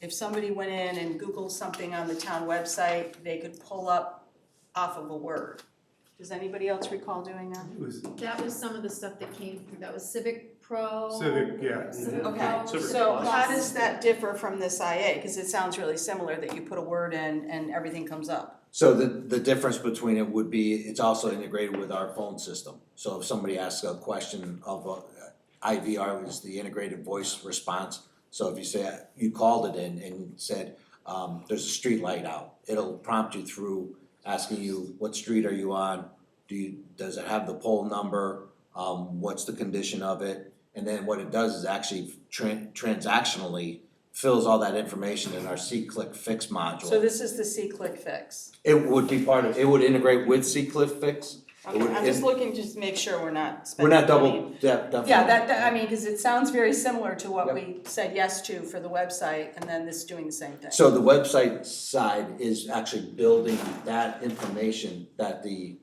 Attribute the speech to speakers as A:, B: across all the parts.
A: if somebody went in and Googled something on the town website, they could pull up off of a word. Does anybody else recall doing that?
B: It was
C: That was some of the stuff that came through, that was Civic Pro.
B: civic, yeah.
C: Civic
A: Okay,
C: Pro,
D: Civic
A: So
D: Plus.
A: how does that differ from this IA? Cause it sounds really similar that you put a word in and everything comes up.
E: So the, the difference between it would be, it's also integrated with our phone system. So if somebody asks a question of, uh, IVR is the integrated voice response. So if you say, you called it in and said, um, there's a street light out, it'll prompt you through asking you, what street are you on? Do you, does it have the pole number? Um, what's the condition of it? And then what it does is actually tran- transactionally fills all that information in our C-click fix module.
A: So this is the C-click fix.
E: It would be part of, it would integrate with C-Cliff Fix. It
A: Okay,
E: would-
A: I'm just
E: it-
A: looking just to make sure we're not
E: We're
A: spending.
E: not
A: I mean,
E: double, yeah, definitely.
A: Yeah, that, that, I mean, cause it sounds very similar to what we said yes to for the website and then this doing the same thing.
E: So the website side is actually building that information that the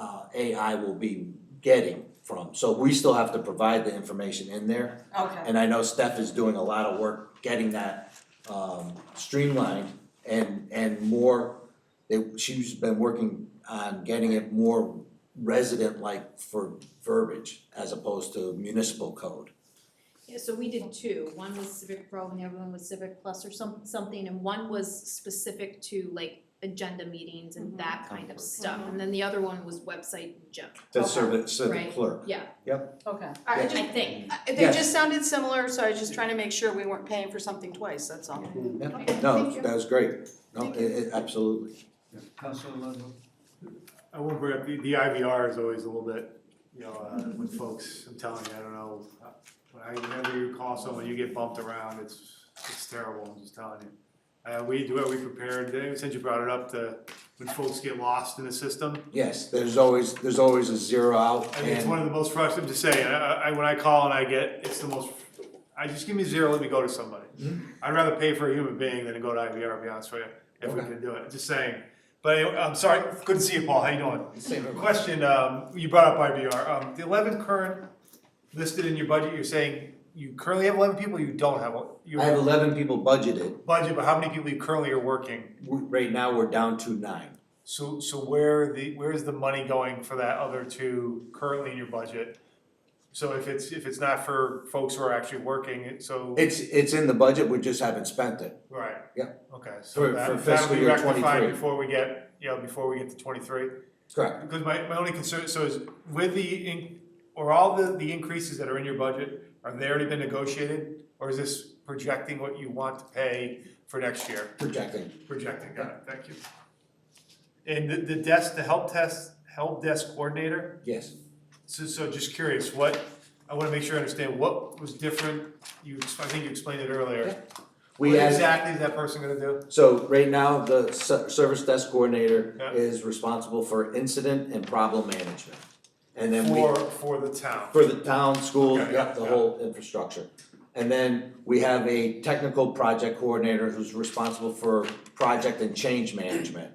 E: uh AI will be getting from. So we still have to provide the information in there.
A: Okay,
E: And I know Steph is doing a lot of work getting that um streamlined and and more. They, she's been working on getting it more resident-like for verbiage as opposed to municipal code.
C: Yeah, so we did two, one was Civic Pro and the other one was Civic Plus or some, something, and one was specific to like agenda meetings and that kind of stuff, and then the other one was website junk.
E: That serve, serve the
C: Right.
E: clerk.
C: Yeah,
A: okay.
C: I I think,
A: I- They
E: Yes.
A: just sounded similar, so I was just trying to make sure we weren't paying for something twice, that's all.
C: Okay,
E: No,
C: thank you.
E: that was great. No,
A: Thank
E: it, it, absolutely.
D: Councilor Ludlow.
B: I won't bring up, the, the IVR is always a little bit, you know, uh, with folks, I'm telling you, I don't know. When I, whenever you call someone, you get bumped around, it's, it's terrible, I'm just telling you. Uh, we do it, we prepared, since you brought it up, the, when folks get lost in the system,
E: Yes, there's always, there's always a zero out
B: I mean, it's one
E: and,
B: of the most frustrating to say. I, I, when I call and I get, it's the most. I just give me zero. Let me go to somebody. I'd rather pay for a human being than to go to IVR. To be honest with you, if we
E: Okay.
B: could do it. Just saying. But anyway, I'm sorry. Good to see you, Paul. How you doing? Question. Um, you brought up IVR. Um, the 11 current listed in your budget. You're saying you currently have 11 people. You don't have. You
E: I have eleven people budgeted.
B: budget, but how many people you currently are working?
E: We- Right now, we're down to nine.
B: So, so where the, where is the money going for that other two currently in your budget? So if it's, if it's not for folks who are actually working, it, so,
E: It's, it's in the budget, we just haven't spent it.
B: right?
E: Yeah.
B: Okay,
E: For-
B: so
E: for
B: that, that'll
E: fiscal
B: be
E: year
B: rectified
E: 23.
B: before we get, you know, before we get to twenty-three?
E: Correct.
B: Because my, my only concern, so is with the, in- or all the, the increases that are in your budget, are they already been negotiated? Or is this projecting what you want to pay for next year?
E: Projecting.
B: Projecting, got it, thank you. And the, the desk, the help test, help desk coordinator,
E: Yes.
B: so, so just curious, what, I wanna make sure I understand, what was different? You, ex- I think you explained it earlier.
E: We
B: What
E: had-
B: exactly is that person gonna do?
E: So right now, the ser- service desk coordinator
B: Yeah.
E: is responsible for incident and problem management. And then we.
B: For, for the town.
E: For the town, schools,
B: Okay,
E: yep, the
B: yeah.
E: whole infrastructure. And then we have a technical project coordinator who's responsible for project and change management.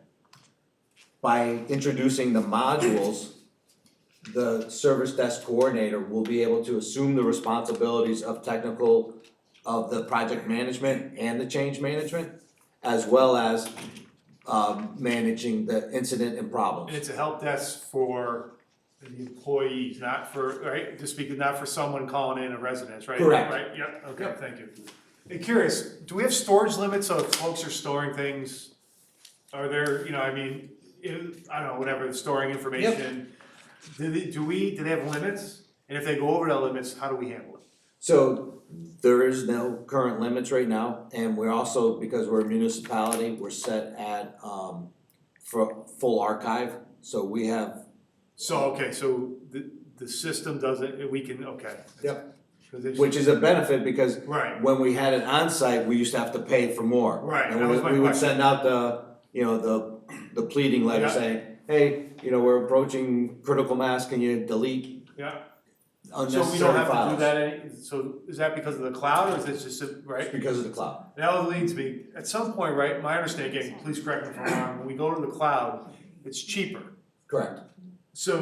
E: By introducing the modules, the service desk coordinator will be able to assume the responsibilities of technical, of the project management and the change management, as well as um managing the incident and
B: And
E: problems.
B: it's a help desk for the employees, not for, right, just speaking, not for someone calling in a residence, right?
E: Correct.
B: Right, yep, okay,
E: Yep.
B: thank you. And curious, do we have storage limits, so if folks are storing things, are there, you know, I mean, if, I don't know, whatever, storing information? Do they, do we, do they have limits? And if they go over the limits, how do we handle it?
E: So there is no current limits right now, and we're also, because we're a municipality, we're set at um for full archive, so we have,
B: So, okay, so the, the system doesn't, we can, okay.
E: Yep.
B: 'Cause it's-
E: which is a benefit because
B: Right,
E: when we had it on site, we used to have to pay for more.
B: Right,
E: And
B: that
E: we-
B: was my
E: we would
B: question.
E: send out the, you know, the the pleading letter
B: Yeah.
E: saying, hey, you know, we're approaching critical mass, can you delete
B: yeah.
E: unnecessary
B: So
E: files?
B: we don't have to do that any, so is that because of the cloud or is it just, a-
E: It's
B: right?
E: Because of the cloud,
B: That would lead to me, at some point, right, my understanding, please correct me if I'm wrong, when we go to the cloud, it's cheaper.
E: correct.
B: So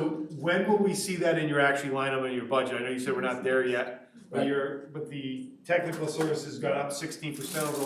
B: when will we see that in your actually line item in your budget? I know you said we're not there yet, but
E: Right.
B: your, but the technical services got up sixteen percent over the